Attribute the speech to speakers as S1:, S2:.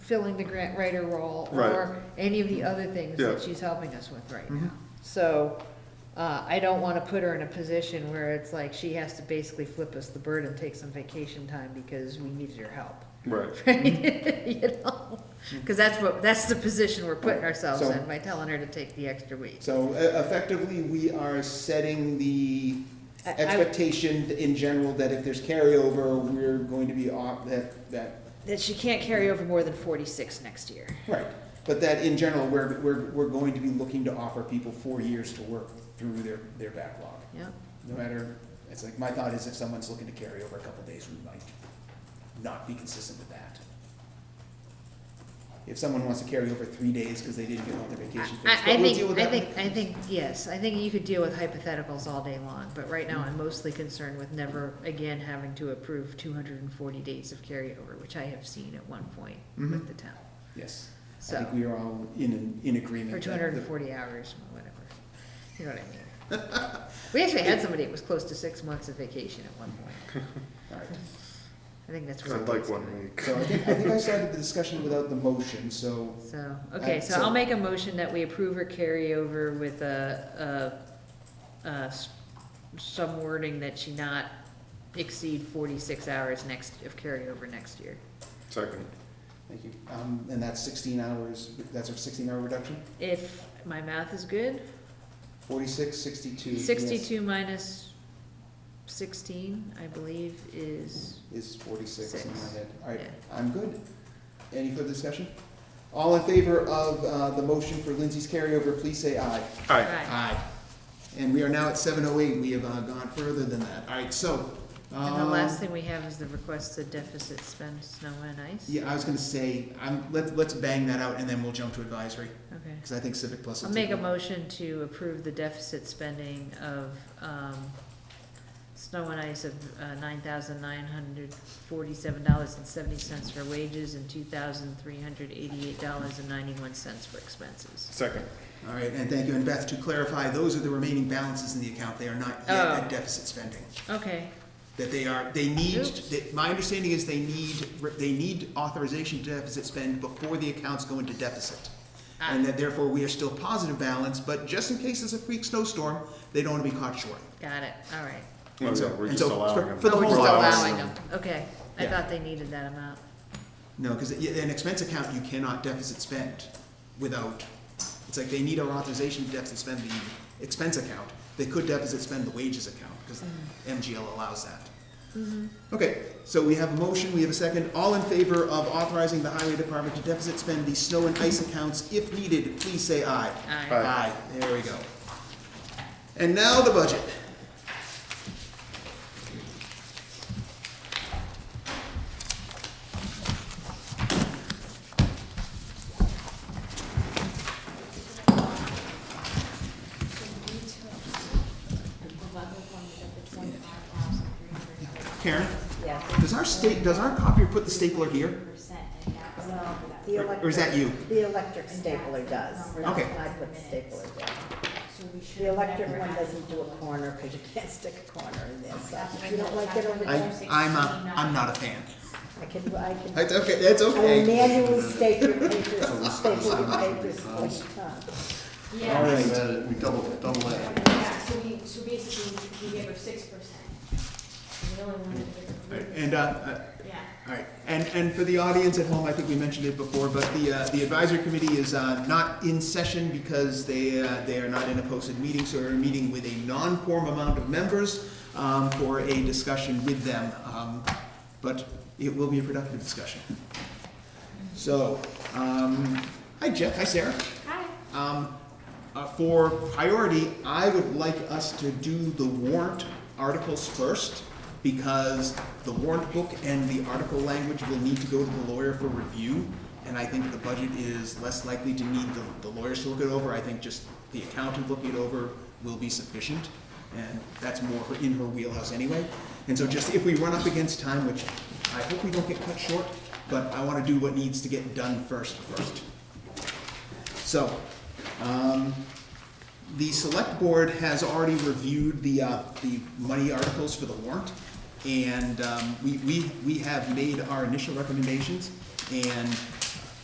S1: filling the grant writer role
S2: Right.
S1: or any of the other things
S2: Yeah.
S1: that she's helping us with right
S2: Mhm.
S1: now. So, uh, I don't wanna put her in a position where it's like she has to basically flip us the bird and take some vacation time because we needed her help.
S2: Right. Mm-hmm.
S1: Right? You know, cause that's what, that's the position we're putting ourselves
S3: So-
S1: in by telling her to take the extra week.
S3: So e- effectively, we are setting the
S1: I- I-
S3: expectation in general that if there's carryover, we're going to be off, that, that,
S1: That she can't carry over more than forty-six next year.
S3: right. But that in general, we're, we're, we're going to be looking to offer people four years to work through their, their backlog.
S1: Yeah,
S3: No matter, it's like, my thought is if someone's looking to carry over a couple days, we might not be consistent with that. If someone wants to carry over three days because they didn't get all their
S1: I,
S3: vacation days,
S1: I
S3: but we'll deal
S1: think,
S3: with
S1: I
S3: that.
S1: think, I think, yes, I think you could deal with hypotheticals all day long, but right now I'm mostly concerned with never again having to approve two hundred and forty days of carryover, which I have seen at one point with
S3: Mhm.
S1: the town,
S3: Yes, I
S1: so,
S3: think we are all in, in agreement.
S1: or
S3: that
S1: two hundred
S3: the-
S1: and forty hours, or whatever, you know what I mean? We actually had somebody that was close to six months of vacation at one point,
S3: All right.
S1: I think that's
S2: I
S1: where. it
S2: like
S1: was
S2: one
S1: going.
S2: week.
S3: So I think, I think I started the discussion without the motion, so,
S1: So, okay, so
S3: so-
S1: I'll make a motion that we approve or carry over with a, a, a s- some wording that she not exceed forty-six hours next, of carryover next year.
S2: Second.
S3: thank you. Um, and that's sixteen hours, that's a sixteen hour reduction?
S1: If my math is good,
S3: Forty-six, sixty-two. yes,
S1: sixty-two minus sixteen, I believe, is,
S3: Is forty-six in my
S1: Six.
S3: head. All right,
S1: Yeah.
S3: I'm good. Any further discussion? All in favor of, uh, the motion for Lindsay's carryover, please say aye.
S2: Aye.
S1: right,
S3: Aye. And we are now at seven oh eight. We have, uh, gone further than that. All right, so.
S1: and the
S3: um,
S1: last thing we have is the requested deficit spend snow and ice.
S3: Yeah, I was gonna say, I'm, let's, let's bang that out and then we'll jump to advisory,
S1: Okay.
S3: because I think Civic Plus will
S1: I'll
S3: take
S1: make a
S3: over.
S1: motion to approve the deficit spending of, um, snow and ice of, uh, nine thousand nine hundred forty-seven dollars and seventy cents for wages and two thousand three hundred eighty-eight dollars and ninety-one cents for expenses.
S2: Second.
S3: All right, and thank you. And Beth, to clarify, those are the remaining balances in the account. They are not yet
S1: Oh.
S3: at deficit spending.
S1: Okay,
S3: That they are, they need,
S1: Oops.
S3: that- my understanding is they need, they need authorization to deficit spend before the accounts go into deficit.
S1: Ah.
S3: And that therefore, we are still positive balance, but just in case there's a freak snowstorm, they don't want to be caught short.
S1: got it, all right.
S2: Well,
S3: And so-
S2: yeah, we're
S3: and
S2: just
S3: so
S2: allowing
S3: for-
S2: them.
S3: for the
S1: Oh, we're just
S3: whole allowance.
S1: allowing them, okay. I
S3: Yeah.
S1: thought they needed that amount.
S3: No, because an expense account, you cannot deficit spend without, it's like they need our authorization to deficit spend the expense account. They could deficit spend the wages account, because MGL allows that. Okay, so we have a motion, we have a second. All in favor of authorizing the highway department to deficit spend the snow and ice accounts if needed, please say aye.
S1: Aye.
S3: Aye, there we go. And now the budget. Karen,
S4: Yeah.
S3: does our state, does our copier put the stapler here?
S4: No, the
S3: Or or is that
S4: electric,
S3: you?
S4: the electric stapler does.
S3: Okay.
S4: I put the stapler down. The electric one doesn't do a corner, because you can't stick a corner in there, so if you don't like it over
S3: I,
S4: there,
S3: I'm, a- I'm not a fan.
S4: I can, I can,
S3: That's okay, that's
S4: I will manually staple papers, staple papers all the time.
S3: All
S5: Yeah,
S3: right.
S6: Added, we double, double added.
S5: yeah, so we, so basically, we gave her six percent. We only wanted to give her,
S3: And, uh, uh,
S5: yeah.
S3: all right, and, and for the audience at home, I think we mentioned it before, but the, uh, the advisory committee is, uh, not in session because they, uh, they are not in a posted meeting, so we're meeting with a non-quorum amount of members, um, for a discussion with them, um, but it will be a productive discussion. So, um, hi Jeff, hi Sarah.
S5: Hi.
S3: Um, uh, for priority, I would like us to do the warrant articles first because the warrant book and the article language will need to go to the lawyer for review. And I think the budget is less likely to need the, the lawyers to look it over. I think just the accountant looking it over will be sufficient. And that's more her- in her wheelhouse anyway. And so just if we run up against time, which I hope we don't get cut short, but I want to do what needs to get done first first. So, um, the select board has already reviewed the, uh, the money articles for the warrant. And, um, we, we, we have made our initial recommendations. And